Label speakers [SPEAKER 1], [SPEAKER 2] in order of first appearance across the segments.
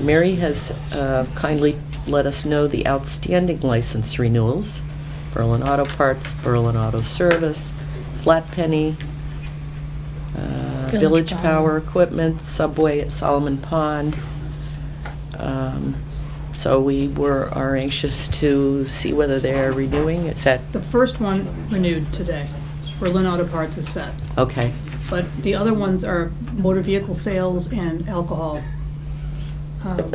[SPEAKER 1] Mary has uh, kindly let us know the outstanding license renewals. Berlin Auto Parts, Berlin Auto Service, Flat Penny, uh,
[SPEAKER 2] Village
[SPEAKER 1] Village
[SPEAKER 2] Power.
[SPEAKER 1] Power Equipment, Subway at Solomon Pond. Um, So we were, are anxious to see whether they're renewing. It's at,
[SPEAKER 3] The first one renewed today. Berlin Auto Parts is set.
[SPEAKER 1] okay,
[SPEAKER 3] But the other ones are motor vehicle sales and alcohol. Um,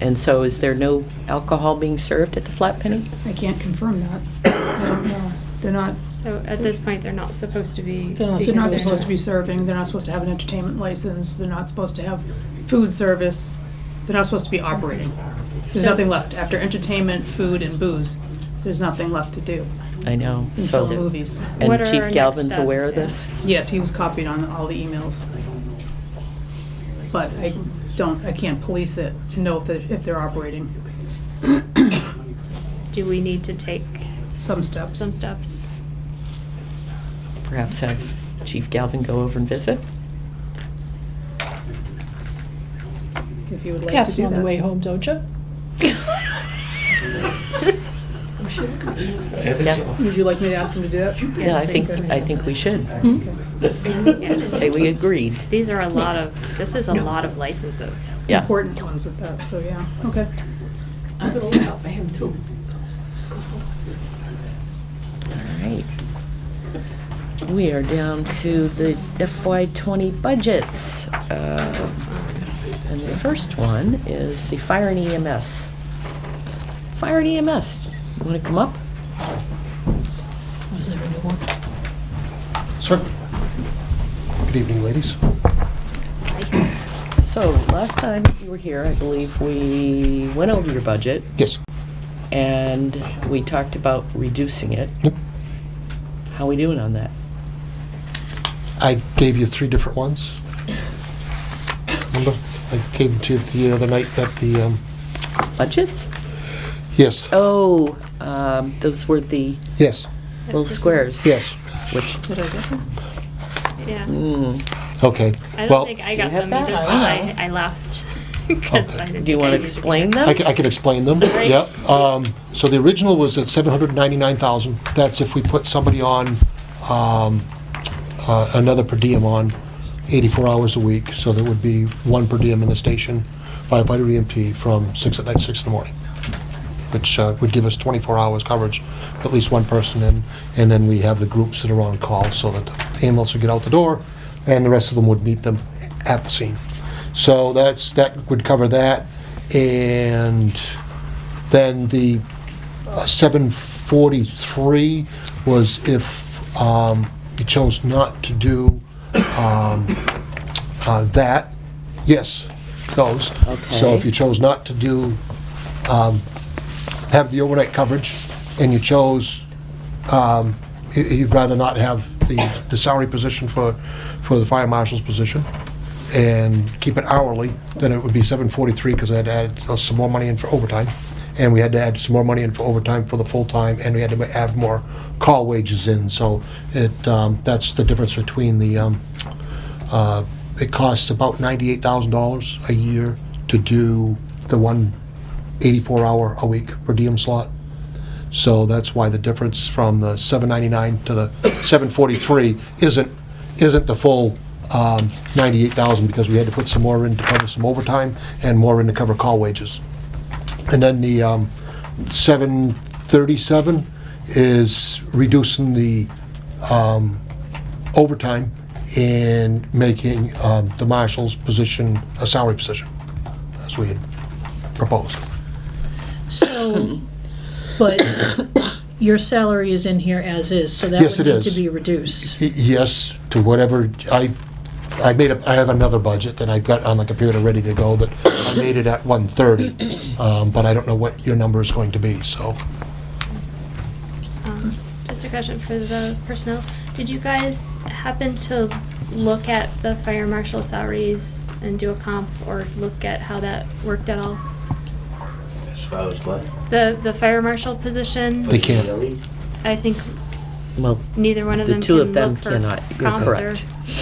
[SPEAKER 1] and so is there no alcohol being served at the Flat Penny?
[SPEAKER 3] I can't confirm that. I don't know. They're not,
[SPEAKER 4] So at this point, they're not supposed to be.
[SPEAKER 2] They're not
[SPEAKER 3] they're not
[SPEAKER 2] Because-
[SPEAKER 3] supposed to be serving, they're not supposed to have an entertainment license, they're not supposed to have food service, they're not supposed to be operating. There's
[SPEAKER 4] So-
[SPEAKER 3] nothing left. After entertainment, food, and booze, there's nothing left to do
[SPEAKER 1] I know,
[SPEAKER 3] until
[SPEAKER 1] so.
[SPEAKER 3] movies.
[SPEAKER 1] And
[SPEAKER 4] What are our
[SPEAKER 1] Chief
[SPEAKER 4] next
[SPEAKER 1] Galvin's
[SPEAKER 4] steps?
[SPEAKER 1] aware of
[SPEAKER 4] Yeah.
[SPEAKER 1] this?
[SPEAKER 3] Yes, he was copied on all the emails. But I don't, I can't police it and know if they're, if they're operating
[SPEAKER 4] Do we need to take
[SPEAKER 3] some steps.
[SPEAKER 4] some steps?
[SPEAKER 1] Perhaps have Chief Galvin go over and visit?
[SPEAKER 3] If you would like to
[SPEAKER 2] Pass it
[SPEAKER 3] do
[SPEAKER 2] on the way
[SPEAKER 3] that.
[SPEAKER 2] home, don't you?
[SPEAKER 5] I think
[SPEAKER 1] Yeah.
[SPEAKER 5] so.
[SPEAKER 3] Would you like me to ask him to do that?
[SPEAKER 1] Yeah, I think,
[SPEAKER 4] Yes,
[SPEAKER 3] please.
[SPEAKER 1] I think we should.
[SPEAKER 5] Mm-hmm.
[SPEAKER 4] Yeah, just-
[SPEAKER 1] Say we agreed.
[SPEAKER 4] These are a lot of, this is a lot of licenses.
[SPEAKER 1] Yeah.
[SPEAKER 3] Important ones at that, so yeah, okay.
[SPEAKER 1] All right. We are down to the FY '20 budgets. Uh, And the first one is the fire and EMS. Fire and EMS, you want to come up?
[SPEAKER 2] Was there a new one?
[SPEAKER 5] Sir. Good evening, ladies.
[SPEAKER 1] So, last time you were here, I believe we went over your budget
[SPEAKER 5] Yes.
[SPEAKER 1] and we talked about reducing it.
[SPEAKER 5] Yep.
[SPEAKER 1] How we doing on that?
[SPEAKER 5] I gave you three different ones. Remember? I gave it to you the other night at the, um,
[SPEAKER 1] Budgets?
[SPEAKER 5] yes,
[SPEAKER 1] Oh, um, those were the
[SPEAKER 5] yes,
[SPEAKER 1] little squares.
[SPEAKER 5] yes.
[SPEAKER 1] Which,
[SPEAKER 4] Yeah.
[SPEAKER 1] mm,
[SPEAKER 5] Okay.
[SPEAKER 4] I don't
[SPEAKER 5] Well,
[SPEAKER 4] think I
[SPEAKER 1] do
[SPEAKER 4] got
[SPEAKER 1] you have
[SPEAKER 4] them either
[SPEAKER 1] that?
[SPEAKER 4] because I, I left. 'Cause I didn't
[SPEAKER 1] do you
[SPEAKER 4] think
[SPEAKER 1] want
[SPEAKER 4] I
[SPEAKER 1] to
[SPEAKER 4] needed
[SPEAKER 1] explain
[SPEAKER 4] get
[SPEAKER 1] them?
[SPEAKER 5] I ca- I can explain them.
[SPEAKER 4] Sorry.
[SPEAKER 5] Yep. Um, So the original was at 799,000. That's if we put somebody on, um, uh, another per diem on 84 hours a week. So there would be one per diem in the station, firefighter EMT, E from 6 at night, 6 in the morning, which uh, would give us 24 hours coverage, at least one person in. And then we have the groups that are on call so that the ambulance would get out the door and the rest of them would meet them at the scene. So that's, that would cover that. And then the uh, 743 was if um, you chose not to do um, uh, that, yes, those. So if
[SPEAKER 1] Okay.
[SPEAKER 5] you chose not to do, um, have the overnight coverage, and you chose, um, you- you'd rather not have the the salary position for, for the fire marshal's position, and keep it hourly, then it would be 743, because I had to add uh, some more money in for overtime, and we had to add some more money in for overtime for the full-time, and we had to add more call wages in, so it, um, that's the difference between the, um, uh, it costs about $98,000 a year to do the one 84-hour a week per diem slot. So that's why the difference from the 799 to the 743 isn't, isn't the full um, 98,000 because we had to put some more in to cover some overtime and more in to cover call wages. And then the um, 737 is reducing the um, overtime and making um, the marshal's position a salary position, as we had proposed.
[SPEAKER 2] So, but your salary is in here as is, so that
[SPEAKER 5] Yes,
[SPEAKER 2] would
[SPEAKER 5] it
[SPEAKER 2] need to
[SPEAKER 5] is.
[SPEAKER 2] be reduced.
[SPEAKER 5] Y- Yes, to whatever, I, I made up, I have another budget that I've got on the computer ready to go that I made it at 130, um, but I don't know what your number is going to be, so.
[SPEAKER 4] Um, Just a question for the personnel. Did you guys happen to look at the fire marshal salaries and do a comp or look at how that worked at all?
[SPEAKER 6] As far as what?
[SPEAKER 4] The, the fire marshal position?
[SPEAKER 5] They can't.
[SPEAKER 6] Really?
[SPEAKER 4] I think
[SPEAKER 1] Well,
[SPEAKER 4] neither one of
[SPEAKER 1] The
[SPEAKER 4] them
[SPEAKER 1] two
[SPEAKER 4] can
[SPEAKER 1] of them
[SPEAKER 4] look for
[SPEAKER 1] cannot. You're
[SPEAKER 4] comps or-
[SPEAKER 1] correct.